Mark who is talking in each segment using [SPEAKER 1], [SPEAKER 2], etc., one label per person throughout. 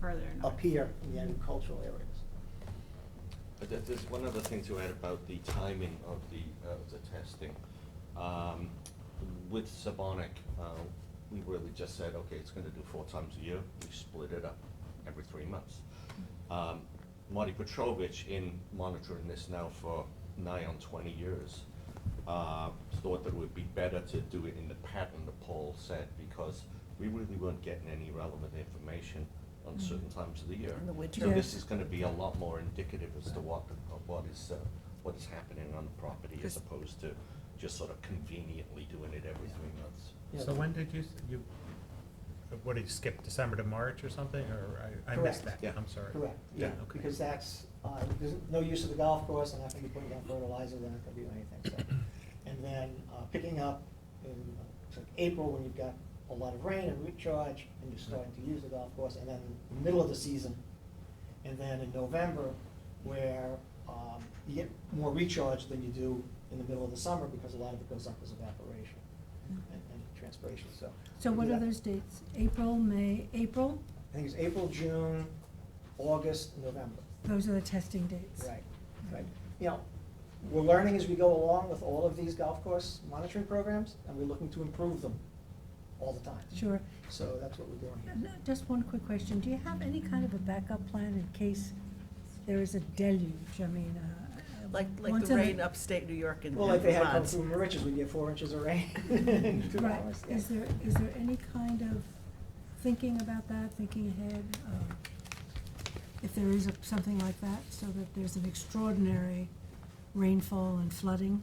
[SPEAKER 1] further north.
[SPEAKER 2] up here in the agricultural areas.
[SPEAKER 3] But there- there's one other thing to add about the timing of the, of the testing. Um, With Sabonic, uh, we really just said, okay, it's gonna do four times a year, we split it up every three months. Um, Marty Petrovich, in monitoring this now for nigh on twenty years, uh, thought that it would be better to do it in the pattern that Paul said, because we really weren't getting any relevant information on certain times of the year.
[SPEAKER 4] Mm. In the winter.
[SPEAKER 3] So
[SPEAKER 4] Yeah.
[SPEAKER 3] this is gonna be a lot more indicative as to what, of what is, uh, what is happening on the property as
[SPEAKER 4] Because-
[SPEAKER 3] opposed to just sort of conveniently doing it every three months.
[SPEAKER 2] Yeah.
[SPEAKER 5] So when did you, s- you, what did you skip, December to March or something, or I, I missed that,
[SPEAKER 2] Correct.
[SPEAKER 3] Yeah.
[SPEAKER 5] I'm sorry.
[SPEAKER 2] Correct, yeah,
[SPEAKER 3] Yeah.
[SPEAKER 5] Okay.
[SPEAKER 2] because that's, uh, there's no use of the golf course, they're not gonna be putting down fertilizer, they're not gonna do anything, so. And then, uh, picking up in, uh, it's like April, when you've got a lot of rain and recharge, and you're starting to use the golf course, and then the middle of the season. And then in November, where, um, you get more recharge than you do in the middle of the summer, because a lot of it goes up as evaporation and, and transpiration, so.
[SPEAKER 6] So what
[SPEAKER 2] Yeah.
[SPEAKER 6] are those dates? April, May, April?
[SPEAKER 2] I think it's April, June, August, November.
[SPEAKER 6] Those are the testing dates.
[SPEAKER 2] Right,
[SPEAKER 6] Mm-hmm.
[SPEAKER 2] right. You know, we're learning as we go along with all of these golf course monitoring programs, and we're looking to improve them all the time.
[SPEAKER 6] Sure.
[SPEAKER 2] So that's what we're doing
[SPEAKER 6] And,
[SPEAKER 2] here.
[SPEAKER 6] uh, Just one quick question. Do you have any kind of a backup plan in case there is a deluge? I mean, uh. uh,
[SPEAKER 4] Like, like
[SPEAKER 6] once
[SPEAKER 4] the
[SPEAKER 6] in a-
[SPEAKER 4] rain upstate New York and.
[SPEAKER 2] Well, like they had come
[SPEAKER 4] floods.
[SPEAKER 2] through Mauritius, we get four inches of rain in two
[SPEAKER 6] Right.
[SPEAKER 2] hours. yeah.
[SPEAKER 6] Is there, is there any kind of thinking about that, thinking ahead? um, If there is a- something like that, so that there's an extraordinary rainfall and flooding?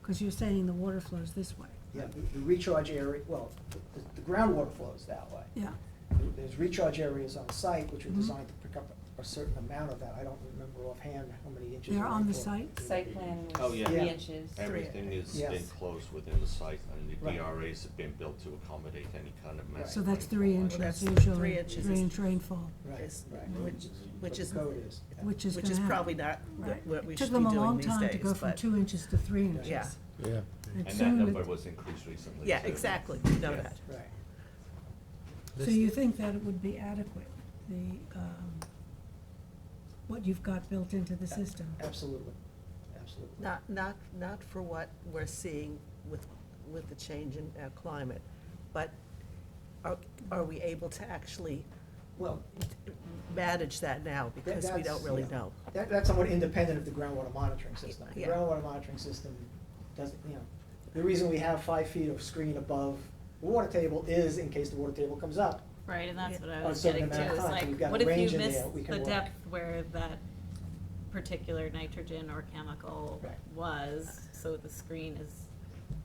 [SPEAKER 6] Because you're saying the water flows this way.
[SPEAKER 2] Yeah, the- the recharge area, well, the the groundwater flows that way.
[SPEAKER 6] Yeah.
[SPEAKER 2] There- There's recharge areas on site which are
[SPEAKER 6] Mhm.
[SPEAKER 2] designed to pick up a certain amount of that. I don't remember offhand how many inches.
[SPEAKER 6] They're
[SPEAKER 2] of
[SPEAKER 6] on the
[SPEAKER 2] rainfall.
[SPEAKER 6] site?
[SPEAKER 7] Site plan
[SPEAKER 3] Oh,
[SPEAKER 7] was three
[SPEAKER 3] yeah.
[SPEAKER 2] Yeah.
[SPEAKER 7] inches.
[SPEAKER 3] Everything is
[SPEAKER 2] Yes.
[SPEAKER 3] enclosed within the site and the
[SPEAKER 2] Right.
[SPEAKER 3] DRAs have been built to accommodate any kind of massive.
[SPEAKER 6] So that's
[SPEAKER 3] rainfall
[SPEAKER 6] three
[SPEAKER 3] like
[SPEAKER 6] inches,
[SPEAKER 3] that.
[SPEAKER 4] that's
[SPEAKER 6] usually,
[SPEAKER 4] three
[SPEAKER 6] three
[SPEAKER 4] inches is-
[SPEAKER 6] inch rainfall,
[SPEAKER 2] Right,
[SPEAKER 4] Is-
[SPEAKER 2] right.
[SPEAKER 4] Which,
[SPEAKER 2] What
[SPEAKER 4] which
[SPEAKER 2] the
[SPEAKER 4] is,
[SPEAKER 2] code is. yeah.
[SPEAKER 6] which is
[SPEAKER 4] which
[SPEAKER 6] gonna
[SPEAKER 4] is
[SPEAKER 6] happen.
[SPEAKER 4] probably not what-
[SPEAKER 6] Right.
[SPEAKER 4] what we
[SPEAKER 6] It
[SPEAKER 4] should
[SPEAKER 6] took
[SPEAKER 4] be
[SPEAKER 6] them a
[SPEAKER 4] doing
[SPEAKER 6] long
[SPEAKER 4] these
[SPEAKER 6] time to
[SPEAKER 4] days,
[SPEAKER 6] go from
[SPEAKER 4] but-
[SPEAKER 6] two inches to three inches.
[SPEAKER 4] Yeah,
[SPEAKER 8] Yeah.
[SPEAKER 6] And
[SPEAKER 3] And that
[SPEAKER 6] soon it-
[SPEAKER 3] number was increased recently.
[SPEAKER 4] yeah,
[SPEAKER 3] too.
[SPEAKER 4] exactly, we know
[SPEAKER 3] Yeah.
[SPEAKER 4] that.
[SPEAKER 2] Right.
[SPEAKER 6] So you think that it would be adequate, the, um, what you've got built into the system?
[SPEAKER 2] Absolutely, absolutely.
[SPEAKER 4] Not, not, not for what we're seeing with, with the change in our climate, but are, are we able to actually
[SPEAKER 2] Well,
[SPEAKER 4] manage that now?
[SPEAKER 2] that-
[SPEAKER 4] Because we
[SPEAKER 2] that's-
[SPEAKER 4] don't really
[SPEAKER 2] yeah.
[SPEAKER 4] know.
[SPEAKER 2] That, that's somewhat independent of the groundwater monitoring system. The
[SPEAKER 4] Yeah.
[SPEAKER 2] groundwater monitoring system doesn't, you know, the reason we have five feet of screen above the water table is in case the water table comes up.
[SPEAKER 1] Right, and that's what I
[SPEAKER 2] Yeah.
[SPEAKER 1] was
[SPEAKER 2] A certain
[SPEAKER 1] getting to,
[SPEAKER 2] amount of
[SPEAKER 1] is
[SPEAKER 2] time, we've got
[SPEAKER 1] like,
[SPEAKER 2] a
[SPEAKER 1] what if
[SPEAKER 2] range
[SPEAKER 1] you
[SPEAKER 2] in
[SPEAKER 1] miss
[SPEAKER 2] there we can
[SPEAKER 1] the
[SPEAKER 2] work.
[SPEAKER 1] depth where that particular nitrogen or chemical
[SPEAKER 2] Right.
[SPEAKER 1] was, so the screen is,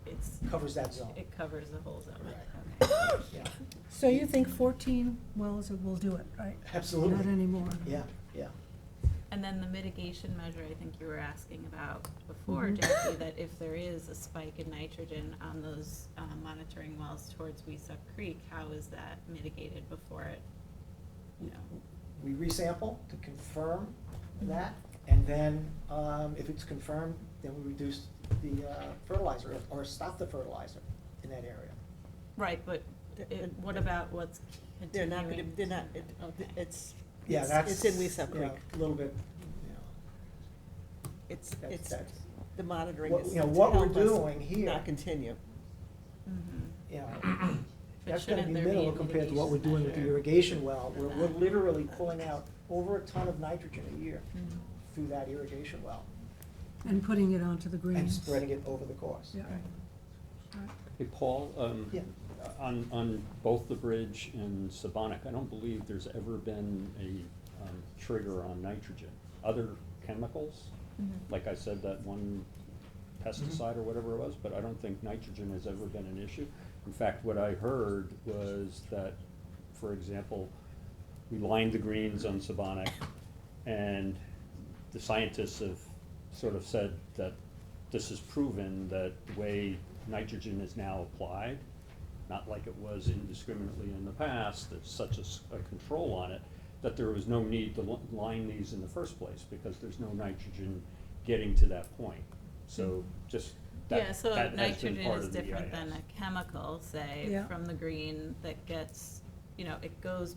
[SPEAKER 1] it's.
[SPEAKER 2] Covers that zone.
[SPEAKER 1] It covers the whole zone,
[SPEAKER 2] Right.
[SPEAKER 1] okay.
[SPEAKER 2] Yeah,
[SPEAKER 6] So you think fourteen wells will do it, right? Not
[SPEAKER 2] absolutely.
[SPEAKER 6] anymore?
[SPEAKER 2] Yeah, yeah.
[SPEAKER 1] And then the mitigation measure, I think you were asking about before,
[SPEAKER 6] Mhm.
[SPEAKER 1] Jackie, that if there is a spike in nitrogen on those uh, monitoring wells towards Weesup Creek, how is that mitigated before it, you know?
[SPEAKER 2] We resample to confirm that, and then, um, if it's confirmed, then we reduce the uh, fertilizer or stop the fertilizer in that area.
[SPEAKER 1] Right, but it, what about what's
[SPEAKER 4] They're
[SPEAKER 1] continuing?
[SPEAKER 4] not, gonna- they're not, it- oh,
[SPEAKER 1] Okay.
[SPEAKER 4] it's,
[SPEAKER 2] Yeah,
[SPEAKER 4] it's-
[SPEAKER 2] that's.
[SPEAKER 4] it's in Weesup
[SPEAKER 2] you know,
[SPEAKER 4] Creek.
[SPEAKER 2] A little bit, you know.
[SPEAKER 4] It's,
[SPEAKER 2] That's-
[SPEAKER 4] it's,
[SPEAKER 2] that's-
[SPEAKER 4] the monitoring
[SPEAKER 2] What-
[SPEAKER 4] is
[SPEAKER 2] you know,
[SPEAKER 4] to
[SPEAKER 2] what we're
[SPEAKER 4] help us
[SPEAKER 2] doing here-
[SPEAKER 4] Not continue.
[SPEAKER 1] Mhm.
[SPEAKER 2] you know,
[SPEAKER 1] But
[SPEAKER 2] that's gonna be
[SPEAKER 1] shouldn't there be a
[SPEAKER 2] minimal compared to what we're doing with the irrigation well, where we're
[SPEAKER 1] Uh-huh.
[SPEAKER 2] literally pulling out over a ton of nitrogen a year
[SPEAKER 1] Mhm.
[SPEAKER 2] through that irrigation well
[SPEAKER 6] And putting it onto the greens?
[SPEAKER 2] and spreading it over the course.
[SPEAKER 6] Yeah. Right.
[SPEAKER 8] Hey, Paul, um,
[SPEAKER 2] Yeah.
[SPEAKER 8] on, on both the bridge and Sabonic, I don't believe there's ever been a, um, trigger on nitrogen. Other chemicals,
[SPEAKER 1] Mhm.
[SPEAKER 8] like I said, that one pesticide or whatever it was, but I don't think nitrogen has ever been an issue. In fact, what I heard was that, for example, we lined the greens on Sabonic, and the scientists have sort of said that this has proven that the way nitrogen is now applied, not like it was indiscriminately in the past, that's such a, s- a control on it, that there was no need to li- line these in the first place, because there's no nitrogen getting to that point. So just,
[SPEAKER 1] Yeah,
[SPEAKER 8] that,
[SPEAKER 1] so
[SPEAKER 8] that has
[SPEAKER 1] nitrogen
[SPEAKER 8] been part
[SPEAKER 1] is
[SPEAKER 8] of the EIS.
[SPEAKER 1] different than a chemical, say,
[SPEAKER 6] Yeah.
[SPEAKER 1] from the green that gets, you know, it goes